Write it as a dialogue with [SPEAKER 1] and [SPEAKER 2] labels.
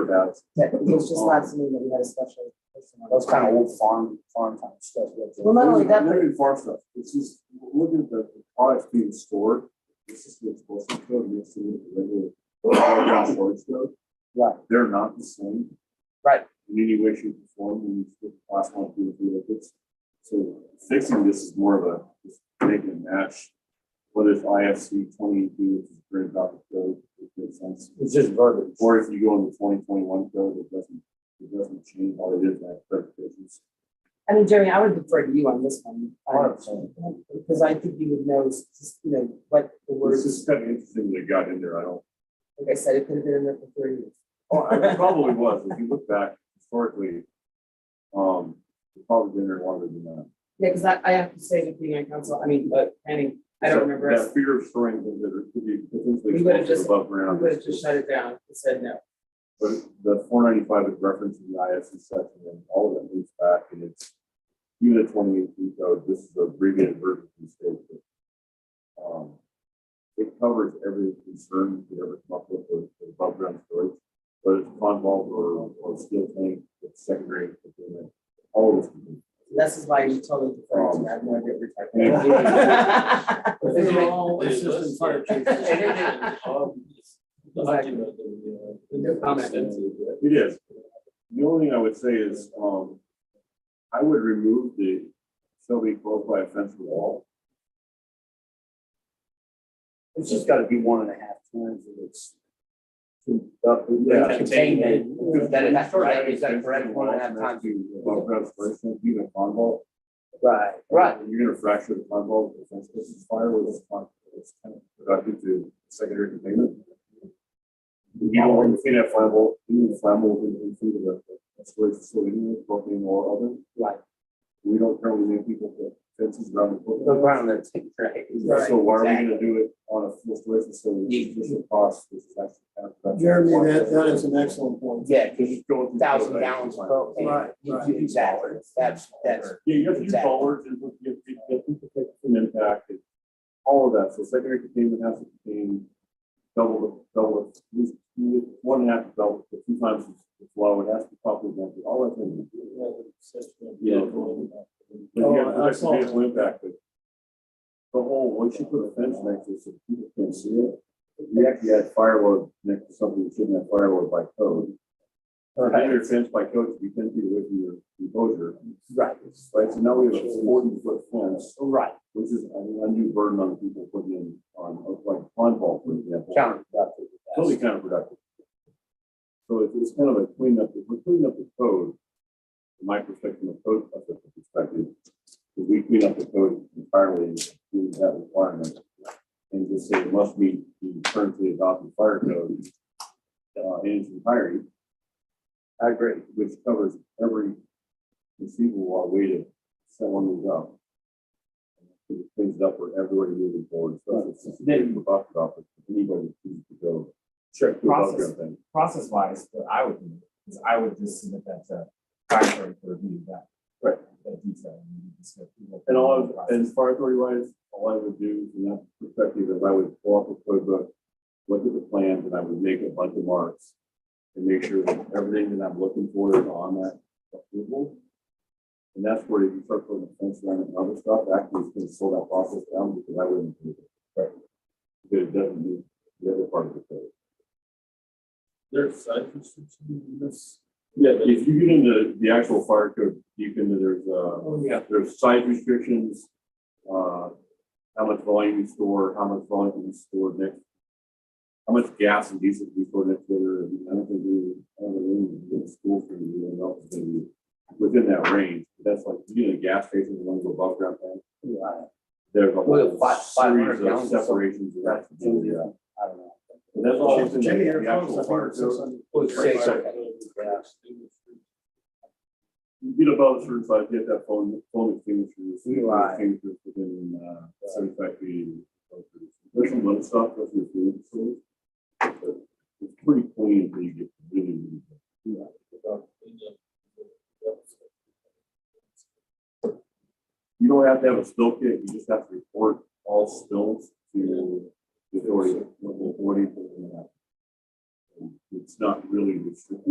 [SPEAKER 1] about.
[SPEAKER 2] Yeah, it was just last meeting that we had a special. person on.
[SPEAKER 1] That's kind of old farm, farm kind of stuff.
[SPEAKER 2] Well, not only that, but-
[SPEAKER 1] Limited farm stuff, it's just, look at the the products being stored, this is the explosive code, this is the regular. ground storage code.
[SPEAKER 2] Right.
[SPEAKER 1] They're not the same.
[SPEAKER 2] Right.
[SPEAKER 1] In any way, shape, or form, when you put class one through the liquids. So fixing this is more of a, just make and match. What if IFC twenty-two, which is great about the code, it makes sense.
[SPEAKER 3] It's just verbiage.
[SPEAKER 1] Or if you go on the twenty twenty-one code, it doesn't, it doesn't change all it is, that clarifications.
[SPEAKER 2] I mean, Jeremy, I would defer to you on this one. I-
[SPEAKER 3] Hundred percent.
[SPEAKER 2] Because I think you would know, s- s- you know, what the
[SPEAKER 1] This
[SPEAKER 2] words,
[SPEAKER 1] is kind of interesting that it got in there, I don't,
[SPEAKER 2] like I said, it could have been in there for thirty years.
[SPEAKER 1] oh, it probably was, if you look back historically, um, it probably been there longer than that.
[SPEAKER 2] Yeah, because I, I have to say that being on council, I mean, but planning, I don't
[SPEAKER 1] That-
[SPEAKER 2] remember. us-
[SPEAKER 1] That fear of storing things that are, could be potentially
[SPEAKER 2] We would've
[SPEAKER 1] explosive
[SPEAKER 2] just-
[SPEAKER 1] above
[SPEAKER 2] We
[SPEAKER 1] ground.
[SPEAKER 2] would have just shut it down and said no.
[SPEAKER 1] But the four ninety-five is referenced in the ISC section, and all of that moves back, and it's even the twenty eighteen code, this is a abbreviated version of the state. but, Um, it covers every concern you could ever come up with with with above ground storage, whether it's pond vault or, or steel tank, it's secondary, containment, all of this.
[SPEAKER 2] This is why you totally defer to me. I have no idea what you're talking
[SPEAKER 1] Um.
[SPEAKER 2] about.
[SPEAKER 3] It's
[SPEAKER 4] They're
[SPEAKER 3] like-
[SPEAKER 4] all-
[SPEAKER 3] it's
[SPEAKER 4] they're
[SPEAKER 3] just fire
[SPEAKER 4] listed.
[SPEAKER 3] chief.
[SPEAKER 4] Um, it's the document that we, uh,
[SPEAKER 2] No comment.
[SPEAKER 4] extensive, right?
[SPEAKER 1] It is. The only thing I would say is, um, I would remove the shall be closed by a fence or wall.
[SPEAKER 3] It's just gotta be one and a half times and it's.
[SPEAKER 1] Yeah.
[SPEAKER 3] Containment.
[SPEAKER 1] That is
[SPEAKER 3] correct, is that correct? One and a half times.
[SPEAKER 1] Above ground storage tank, even a pond vault.
[SPEAKER 3] Right.
[SPEAKER 1] You're gonna fracture the pond vault, if the fence catches fire with this pond, it's kind of productive to secondary containment. You don't want to clean that flammable, you need flammable in, in food of a storage facility, propane or oven.
[SPEAKER 3] Right.
[SPEAKER 1] We don't currently make people put fences around the.
[SPEAKER 3] The
[SPEAKER 1] equipment.
[SPEAKER 3] ground that's, right.
[SPEAKER 1] So why are we gonna do it on a full storage facility, which is a cost, which is actually. kind of productive?
[SPEAKER 5] Jeremy, that, that is an excellent point.
[SPEAKER 3] Yeah, cause
[SPEAKER 1] Just go through-
[SPEAKER 3] thousand gallons of propane.
[SPEAKER 5] Right,
[SPEAKER 3] You-
[SPEAKER 5] right.
[SPEAKER 3] you- Exactly, that's, that's.
[SPEAKER 1] Yeah, you have to use
[SPEAKER 3] Exactly.
[SPEAKER 1] bollards and look, you have to, you have to protect from impact and all of that. So secondary containment has to contain double, the double, the- at least one and a half double, the two times the flow. It has to be properly vented, all that thing. Yeah. But you have to
[SPEAKER 6] uh,
[SPEAKER 5] Oh, I
[SPEAKER 1] protect
[SPEAKER 5] saw
[SPEAKER 1] the vehicle impact, but the whole, once you put a fence next to it, so people can't see it. You actually had firewood next to something that shouldn't have firewood by code. Or having your fence by code, you can be with your enclosure.
[SPEAKER 3] Right,
[SPEAKER 1] Right, so now we have a forty foot fence,
[SPEAKER 3] right,
[SPEAKER 1] which is an undue burden on people putting in on, like, pond vault, for example.
[SPEAKER 3] counterproductive.
[SPEAKER 1] Totally counterproductive. So it's, it's kind of a cleanup, if we're cleaning up the code, from my perspective, from a code officer perspective, if we clean up the code entirely, do that requirement, and just say it must meet the currently adopted fire code, uh, in its entirety,
[SPEAKER 3] I agree.
[SPEAKER 1] which covers every conceivable uh, way to set one of these up. It cleans it up for everybody moving forward, so it's just maybe we talked about, but anybody who to go.
[SPEAKER 6] Sure,
[SPEAKER 1] to above
[SPEAKER 6] process,
[SPEAKER 1] ground thing.
[SPEAKER 6] process wise, what I would do is I would just submit that to fire department for review that.
[SPEAKER 1] Right.
[SPEAKER 6] That detail. and you can just go through what
[SPEAKER 1] And all,
[SPEAKER 6] the
[SPEAKER 1] of-
[SPEAKER 6] process-
[SPEAKER 1] as far as authority wise, all I would do from that perspective is I would pull up a code book, look at the plans, and I would make a bunch of marks. And make sure that everything that I'm looking for is on that approval. And that's where you start putting the fence around and other stuff, actually, it's gonna slow that process down because I wouldn't. do it.
[SPEAKER 6] Right.
[SPEAKER 1] Because it doesn't meet the other part of the code.
[SPEAKER 4] There's side restrictions in this.
[SPEAKER 1] Yeah, if you get into the actual fire code, you can, there's, uh,
[SPEAKER 2] Oh, yeah.
[SPEAKER 1] there's site restrictions, uh, how much volume you store, how much volume you store next. How much gas and diesel you store next to it, I don't think we, I don't think we, in school for you, and else is gonna be within that range. That's like, you get a gas station, the one go above ground tank,
[SPEAKER 3] Right.
[SPEAKER 1] there's a
[SPEAKER 3] Well,
[SPEAKER 1] whole
[SPEAKER 3] five- five hundred
[SPEAKER 1] series of
[SPEAKER 3] gallons or something.
[SPEAKER 1] separations. that have to do with that.
[SPEAKER 3] I don't know.
[SPEAKER 1] And that's all within
[SPEAKER 5] Jimmy, your
[SPEAKER 1] the
[SPEAKER 5] phone's,
[SPEAKER 1] actual
[SPEAKER 5] I
[SPEAKER 1] fire
[SPEAKER 5] think,
[SPEAKER 1] code.
[SPEAKER 5] six hundred.
[SPEAKER 3] Well, say something.
[SPEAKER 1] You get above a certain size, you have that phone, phone extinguishers. you know,
[SPEAKER 3] Right.
[SPEAKER 1] Extinguishers within, uh, seventy-five feet. of the- There's some little stuff that's in food, so. but It's pretty clean until you get really, really. You don't have to have a spill kit, you just have to report all spills to the authority, local authority. and, uh, It's not really restricted.